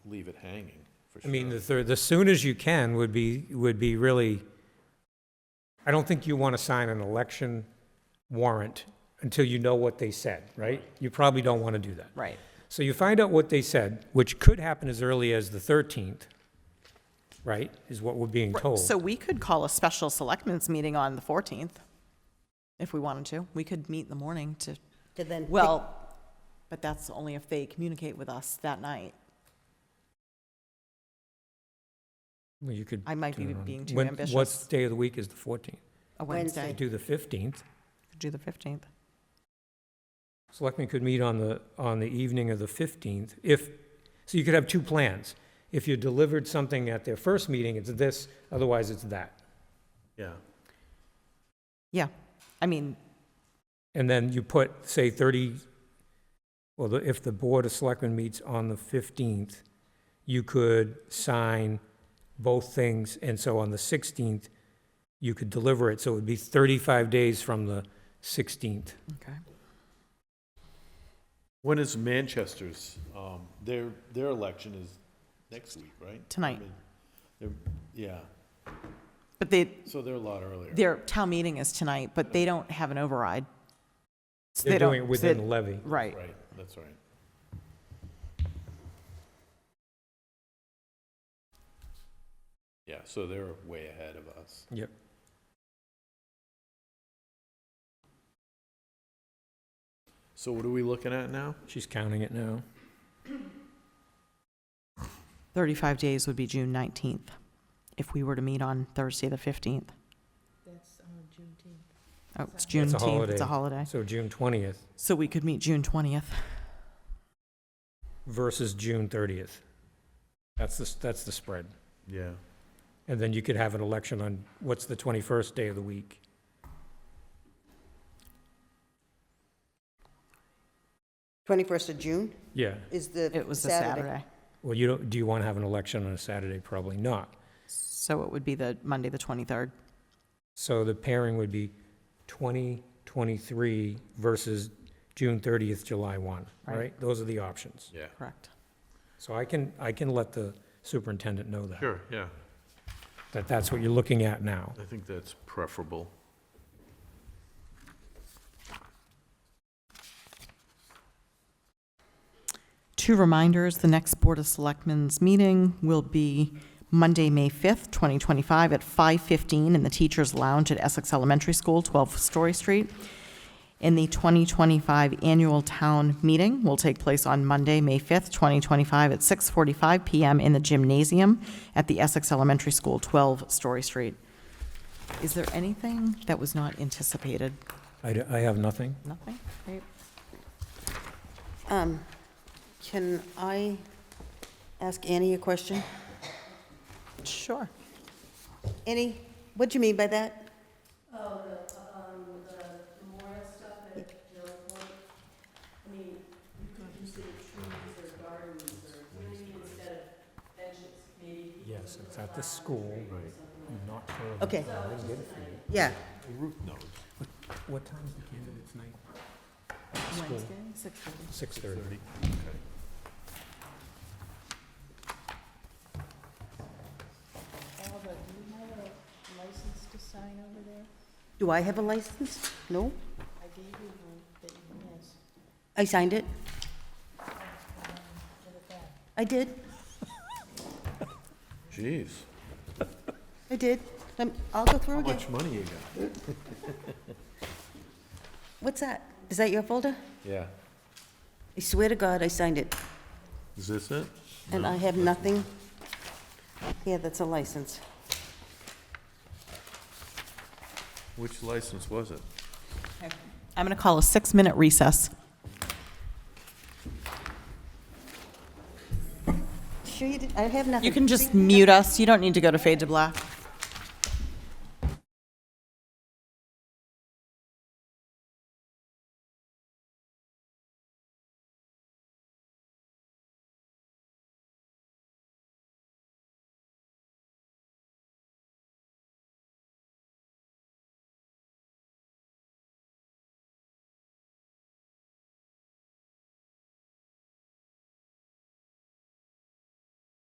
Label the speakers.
Speaker 1: leave it hanging, for
Speaker 2: I
Speaker 1: sure.
Speaker 2: mean, the, thir- the soon as you can would be, would be really, I don't think you want to sign an election warrant until you know what they said, right? You probably don't want to do that.
Speaker 3: Right.
Speaker 2: So you find out what they said, which could happen as early as the 13th, right, is what we're being told.
Speaker 3: So we could call a special selectmen's meeting on the 14th if we wanted to. We could meet in the morning to,
Speaker 4: to then. pick-
Speaker 3: well, but that's only if they communicate with us that night.
Speaker 2: Well, you could
Speaker 3: I might
Speaker 2: do
Speaker 3: be
Speaker 2: it on-
Speaker 3: being too
Speaker 2: when- What
Speaker 3: ambitious.
Speaker 2: day of the week is the 14th?
Speaker 3: A
Speaker 4: Wednesday.
Speaker 3: Wednesday,
Speaker 2: Do the 15th.
Speaker 3: do the 15th.
Speaker 2: Selectmen could meet on the, on the evening of the 15th, if, so you could have two plans. If you delivered something at their first meeting, it's this, otherwise it's that.
Speaker 1: Yeah,
Speaker 3: Yeah, I mean,
Speaker 2: And then you put, say, 30, well, the- if the Board of Selectmen meets on the 15th, you could sign both things, and so on the 16th, you could deliver it, so it would be 35 days from the 16th.
Speaker 3: okay.
Speaker 1: when is Manchester's, um, their, their election is next week, right?
Speaker 3: Tonight.
Speaker 1: I mean, they're- Yeah,
Speaker 3: But they,
Speaker 1: so they're a lot earlier.
Speaker 3: their town meeting is tonight, but they don't have an override. So
Speaker 2: They're
Speaker 3: they don't-
Speaker 2: doing it
Speaker 3: so
Speaker 2: within the
Speaker 3: they-
Speaker 2: levy.
Speaker 3: Right.
Speaker 1: Right, that's right. Yeah, so they're way ahead of us.
Speaker 2: Yep.
Speaker 1: So what are we looking at now?
Speaker 2: She's counting it now.
Speaker 3: 35 days would be June 19th if we were to meet on Thursday, the 15th. That's Juneteenth. Oh,
Speaker 2: That's
Speaker 3: it's
Speaker 2: a
Speaker 3: Juneteenth, it's
Speaker 2: holiday.
Speaker 3: a holiday.
Speaker 2: So June 20th
Speaker 3: So we could meet June 20th.
Speaker 2: versus June 30th. That's the, that's the spread.
Speaker 1: Yeah.
Speaker 2: And then you could have an election on, what's the 21st day of the week?
Speaker 4: Twenty-first of June
Speaker 2: Yeah.
Speaker 4: is the.
Speaker 3: It was a Saturday.
Speaker 2: Well, you don't, do you want to have an election on a Saturday? Probably not.
Speaker 3: So it would be the Monday, the 23rd.
Speaker 2: So the pairing would be 2023 versus June 30th, July 1,
Speaker 3: Right.
Speaker 2: right? Those are the options.
Speaker 1: Yeah.
Speaker 3: Correct.
Speaker 2: So I can, I can let the superintendent know that,
Speaker 1: Sure, yeah.
Speaker 2: that that's what you're looking at now.
Speaker 1: I think that's preferable.
Speaker 3: Two reminders, the next Board of Selectmen's meeting will be Monday, May 5th, 2025, at 5:15 in the Teachers Lounge at Essex Elementary School, 12 Story Street. And the 2025 Annual Town Meeting will take place on Monday, May 5th, 2025, at 6:45 PM in the Gymnasium at the Essex Elementary School, 12 Story Street. Is there anything that was not anticipated?
Speaker 2: I, d- I have nothing.
Speaker 3: Nothing? Great.
Speaker 4: Um, Can I ask Annie a question?
Speaker 3: Sure.
Speaker 4: Annie, what do you mean by that?
Speaker 2: Yes, it's at the school. Not for
Speaker 4: Okay, yeah,
Speaker 2: What time's the candidate's night?
Speaker 3: Wednesday, 6:30.
Speaker 2: 6:30.
Speaker 5: Alva, do you have a license to sign over there?
Speaker 4: do I have a license? No?
Speaker 5: I gave you one that you can use.
Speaker 4: I signed it? I did,
Speaker 1: Jeez,
Speaker 4: I did. Um, I'll go through
Speaker 1: how
Speaker 4: again.
Speaker 1: much money you got?
Speaker 4: What's that? Is that your folder?
Speaker 1: Yeah.
Speaker 4: I swear to God, I signed it,
Speaker 1: Is this it?
Speaker 4: and I have nothing. Yeah, that's a license.
Speaker 1: Which license was it?
Speaker 3: I'm going to call a six-minute recess.
Speaker 4: Sure you did, I have nothing.
Speaker 3: You can just
Speaker 4: See?
Speaker 3: mute us, you don't need to go to fade to black.